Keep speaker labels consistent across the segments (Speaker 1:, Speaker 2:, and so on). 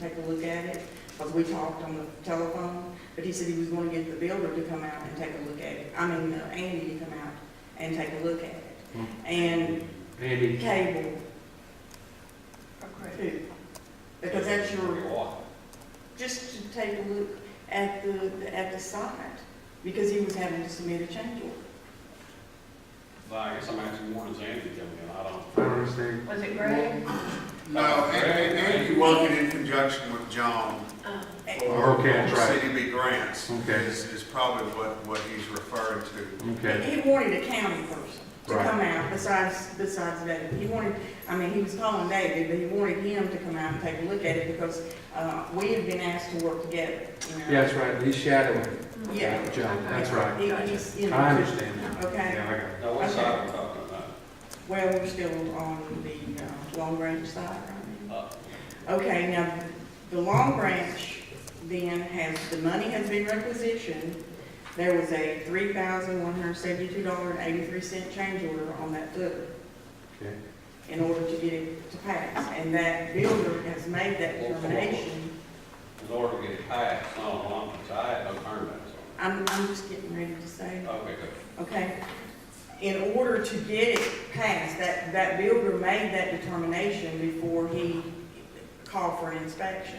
Speaker 1: take a look at it, because we talked on the telephone, but he said he was gonna get the builder to come out and take a look at it. I mean, uh, Andy to come out and take a look at it. And
Speaker 2: Andy.
Speaker 1: cable
Speaker 3: Okay.
Speaker 1: too, because that's your, just to take a look at the, at the site, because he was having to submit a change order.
Speaker 4: Well, I guess I'm asking more does Andy come in, I don't.
Speaker 2: I don't understand.
Speaker 3: Was it Greg?
Speaker 5: No, and, and Andy working in conjunction with John
Speaker 3: Oh.
Speaker 5: for
Speaker 2: Okay, that's right.
Speaker 5: CDB grants
Speaker 2: Okay.
Speaker 5: is, is probably what, what he's referring to.
Speaker 2: Okay,
Speaker 1: He wanted a county person to
Speaker 2: Right.
Speaker 1: come out besides, besides David. He wanted, I mean, he was calling David, but he wanted him to come out and take a look at it because, uh, we had been asked to work together, you know?
Speaker 2: yeah, that's right, he's shadowing
Speaker 3: hmm.
Speaker 1: Yeah.
Speaker 2: John, that's right.
Speaker 1: He- He's, you
Speaker 2: I
Speaker 1: know,
Speaker 2: understand that.
Speaker 1: okay,
Speaker 2: Yeah, I got it.
Speaker 4: Now, what side are we talking about?
Speaker 1: well, we're still on the, uh, long range side right
Speaker 4: Up.
Speaker 1: now. Okay, now, the long branch then has, the money has been requisitioned. There was a three thousand one hundred seventy-two dollar and eighty-three cent change order on that footer.
Speaker 2: Okay.
Speaker 1: in order to get it to pass. And that builder has made that determination.
Speaker 4: In order to get it passed, no, I'm, I have no permits
Speaker 1: I'm, I'm just getting ready to say,
Speaker 4: on it. Okay, good.
Speaker 1: okay? In order to get it passed, that, that builder made that determination before he called for an inspection,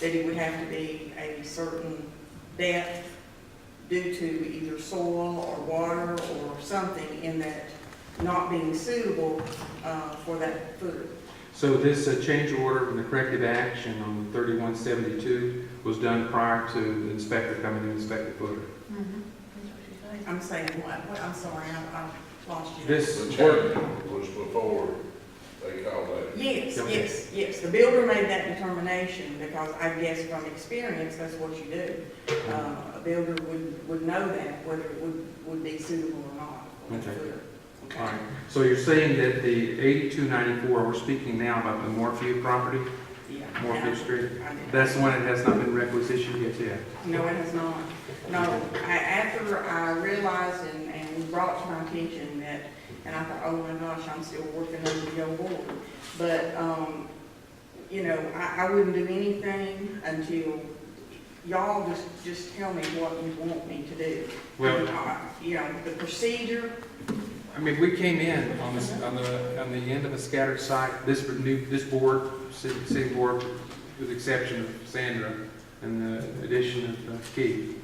Speaker 1: that it would have to be a certain depth due to either soil or water or something in that not being suitable, uh, for that footer.
Speaker 2: So this uh, change order and the corrective action on thirty-one seventy-two was done prior to the inspector coming to inspect the footer?
Speaker 3: Mhm. That's what she said.
Speaker 1: I'm saying, what, what, I'm sorry, I, I lost you.
Speaker 2: This
Speaker 6: The
Speaker 2: work,
Speaker 6: change was before they called that.
Speaker 1: Yes,
Speaker 2: Okay.
Speaker 1: yes, yes, the builder made that determination, because I guess from experience, that's what you do. Uh, a builder would, would know that, whether it would, would be suitable or not.
Speaker 2: Okay. all right, so you're saying that the eighty-two ninety-four, we're speaking now about the Morphew property,
Speaker 1: Yeah.
Speaker 2: Morphew Street?
Speaker 1: I did.
Speaker 2: That's the one that has not been requisitioned yet, yeah?
Speaker 1: No, it has not. No, I, after I realized and, and brought to my attention that, and I thought, oh my gosh, I'm still working under the old board. But, um, you know, I, I wouldn't do anything until y'all just, just tell me what you want me to do.
Speaker 2: Well-
Speaker 1: Uh, You know, the procedure,
Speaker 2: I mean, we came in on this, on the, on the end of a scattered site, this new, this board, city, city board, with the exception of Sandra and the addition of uh, Keith,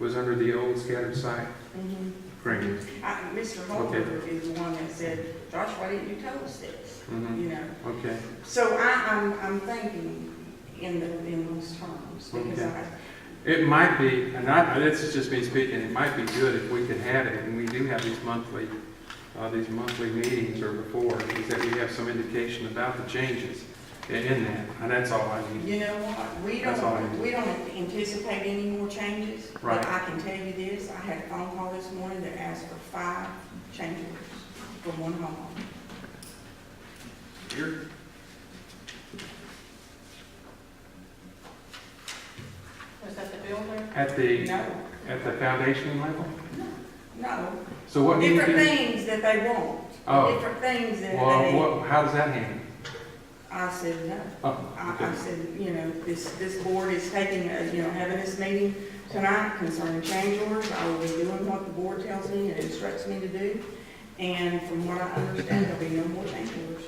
Speaker 2: was under the old scattered site
Speaker 1: mhm.
Speaker 2: agreement.
Speaker 1: I, Mr. Holder is the one that said, Josh, why didn't you tell us this?
Speaker 2: Mhm.
Speaker 1: You know,
Speaker 2: Okay,
Speaker 1: So I, I'm, I'm thinking in the, in those terms, because
Speaker 2: Okay.
Speaker 1: I,
Speaker 2: it might be, and I, this is just me speaking, it might be good if we could have it, and we do have these monthly, uh, these monthly meetings or before, is that we have some indication about the changes in- in that, and that's all I need.
Speaker 1: you know what, we
Speaker 2: That's all I need.
Speaker 1: don't, we don't anticipate any more changes.
Speaker 2: Right.
Speaker 1: But I can tell you this, I had a phone call this morning that asked for five change orders from one homeowner.
Speaker 4: Here?
Speaker 3: Was that the builder?
Speaker 2: At the,
Speaker 1: No,
Speaker 2: at the foundation level?
Speaker 1: no,
Speaker 2: So what do you do?
Speaker 1: different things that they want,
Speaker 2: Oh.
Speaker 1: different things that
Speaker 2: Well,
Speaker 1: they,
Speaker 2: what, how does that handle?
Speaker 1: I said no.
Speaker 2: Oh,
Speaker 1: I, I
Speaker 2: okay.
Speaker 1: said, you know, this, this board is taking, a- you know, having this meeting tonight concerning change orders. I will be doing what the board tells me and instructs me to do. And from what I understand, there'll be no more change orders,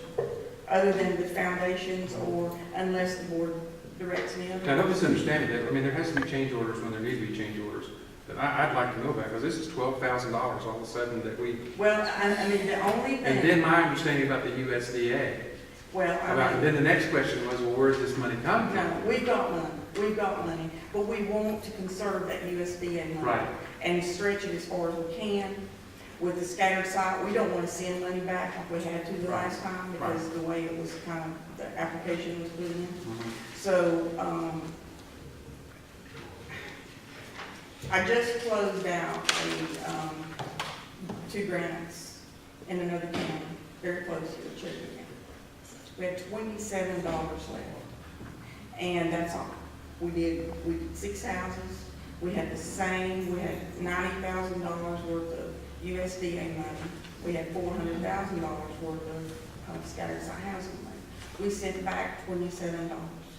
Speaker 1: other than the foundations or unless the board directs me.
Speaker 2: Now, don't
Speaker 1: otherwise.
Speaker 2: misunderstand me, that, I mean, there has to be change orders when there need to be change orders. But I, I'd like to know that, because this is twelve thousand dollars all of a sudden that we,
Speaker 1: Well, I, I mean, the only
Speaker 2: and then
Speaker 1: thing,
Speaker 2: my understanding about the USDA.
Speaker 1: well, I
Speaker 2: About,
Speaker 1: mean.
Speaker 2: then the next question was, well, where's this money come
Speaker 1: No,
Speaker 2: from?
Speaker 1: we've got money, we've got money, but we want to conserve that USDA money.
Speaker 2: Right.
Speaker 1: And stretch it as far as we can. With the scattered site, we don't want to send money back like we had to the last time because the way it was kind of, the application was put in.
Speaker 2: Mhm.
Speaker 1: So, um, I just closed out a, um, two grants in another county, very close to the Cherokee County. We had twenty-seven dollars left, and that's all. We did, we did six houses, we had the same, we had ninety thousand dollars worth of USDA money, we had four hundred thousand dollars worth of, um, scattered site housing money. We sent back twenty-seven dollars.